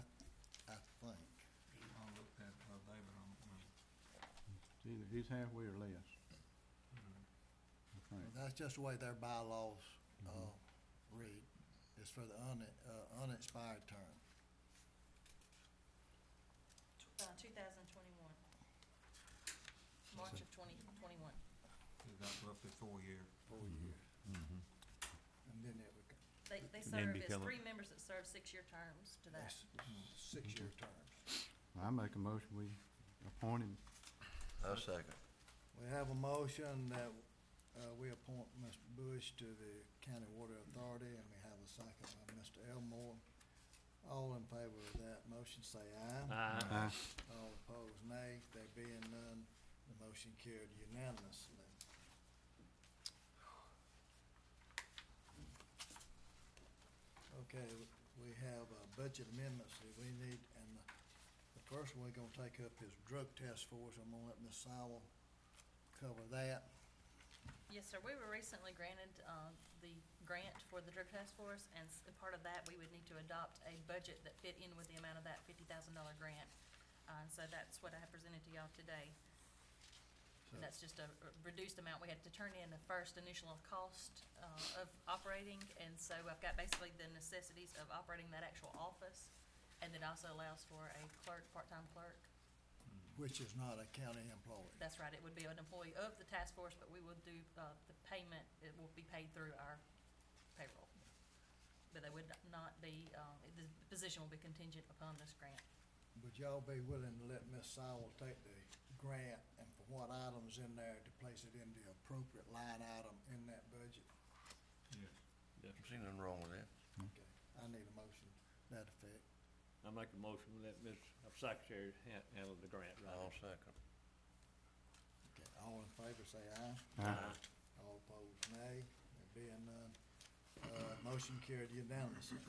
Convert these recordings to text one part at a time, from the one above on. uh, he's halfway or less. I think. That's just the way their bylaws, uh, Mhm. read. It's for the un, uh, unexpired term. uh, two thousand twenty-one. March of twenty twenty-one. That's roughly four years. Four years. And then it would, go- They, they And then serve, it's become a- three members that serve six-year terms to that. that's six-year terms. I make a motion, we appoint him. I second. We have a motion that, uh, we appoint Mr. Bush to the County Water Authority, and we have a second by Mr. Elmore. All in favor of that motion, say aye. Uh, Aye. All opposed, nay. There being none, the motion carried unanimously. Okay, w- we have uh, budget amendments that we need, and the the first one we're gonna take up is drug test force. I'm gonna let Ms. Sowell cover that. Yes, sir, we were recently granted, uh, the grant for the drug task force, and s- and part of that, we would need to adopt a budget that fit in with the amount of that fifty thousand dollar grant. Uh, and so that's what I have presented to y'all today, So, and that's just a r- reduced amount, we had to turn in the first initial cost, uh, of operating, and so I've got basically the necessities of operating that actual office, and it also allows for a clerk, part-time clerk, Which is not a county employee. That's right, it would be an employee of the task force, but we will do, uh, the payment, it will be paid through our payroll. But they would not be, um, the position will be contingent upon this grant. Would y'all be willing to let Ms. Sowell take the grant and for what items in there to place it in the appropriate line item in that budget? Yes. See nothing wrong with that. Okay, I need a motion to that effect. I make a motion that Ms. Secretary ha- handle the grant I'll writing. second. Okay, all in favor, say aye. Aye. All opposed, nay. There being none, uh, motion carried unanimously.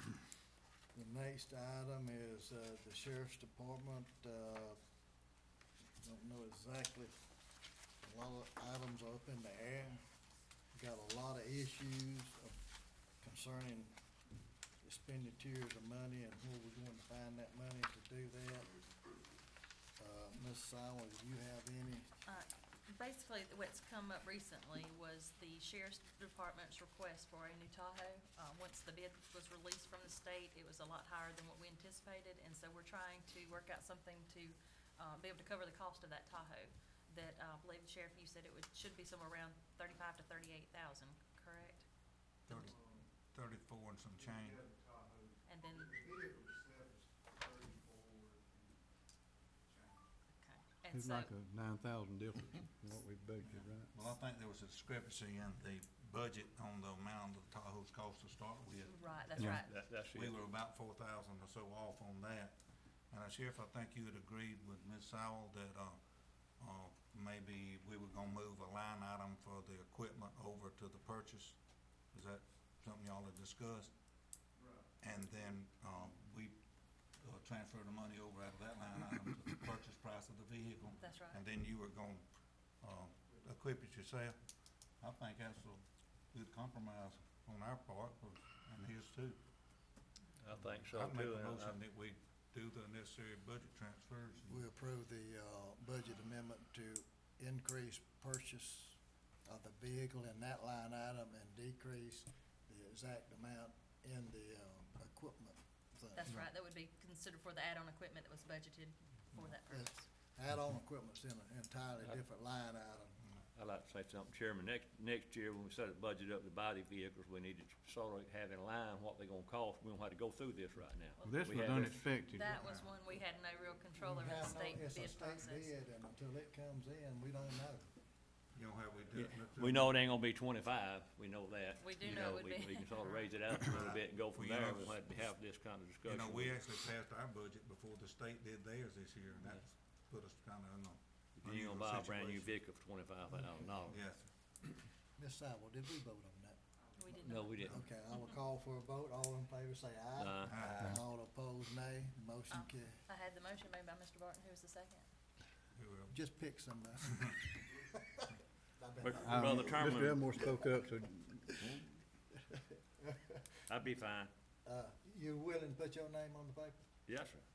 The next item is, uh, the sheriff's department, uh, don't know exactly, a lot of items are up in the air. Got a lot of issues of- concerning expenditures of money and where we're going to find that money to do that. Uh, Ms. Sowell, do you have any? Uh, Basically, th- what's come up recently was the sheriff's department's request for a new Tahoe. Uh, Once the bid was released from the state, it was a lot higher than what we anticipated, and so we're trying to work out something to uh, be able to cover the cost of that Tahoe. That, uh, I believe, Sheriff, you said it would, should be somewhere around thirty-five to thirty-eight thousand, correct? Thirty, thirty-four and some change. And then, okay, and It's so, like a nine thousand difference in what we budgeted, right? Well, I think there was a discrepancy in the budget on the amount of Tahoe's cost to start with. right, that's Yeah. right. That, that's We it. were about four thousand or so off on that. And uh, Sheriff, I think you had agreed with Ms. Sowell that, uh, uh, maybe we were gonna move a line item for the equipment over to the purchase. Is that something y'all had discussed? Right. And then, um, we, uh, transferred the money over out of that line item to the purchase price of the vehicle. That's right. And then you were gonna, uh, equip it yourself. I think that's a good compromise on our part, and his too. I think so I'd make too. a and I- motion that we do the necessary budget transfers. We approve the, uh, budget amendment to increase purchase of the vehicle in that line item and decrease the exact amount in the, um, equipment thing. That's right, that would be considered for the add-on equipment that was budgeted for that Yeah. purpose. Add-on equipment's in an entirely different line item. I'd like to say something, Chairman. Next, next year, when we set the budget up to buy the vehicles, we need to sort of have in line what they're gonna cost. We don't have to go through this right now. This We was had unexpected. That was one we had no real control over the Yeah, no, state it's a bid state process. bid, and until it comes in, we don't know. You know how we do it. uh, Let's do We it. know it ain't gonna be twenty-five. We know that. We do You know it would we- be- We can sort of raise it out a little bit and go Well, from you there. know, We'll have to have this kind of discussion. You know, we with- actually passed our budget before the state did theirs this year, and that's put us kind of in a You unusual gonna buy a brand new situation. vehicle for twenty-five thousand dollars. Yes. Ms. Sowell, did we vote on that? We did No, not. we didn't. Okay, I will call for a vote. All in favor, say aye. Uh, Aye. All opposed, nay. Motion Aye. carried. I had the motion made by Mr. Barton, who was the second? We will. Just pick some. uh, I've Uh, been- but Um, Brother Mr. Terman, Elmore spoke up, so I'd be fine. Uh, you willing to put your name on the paper? Yes, sir.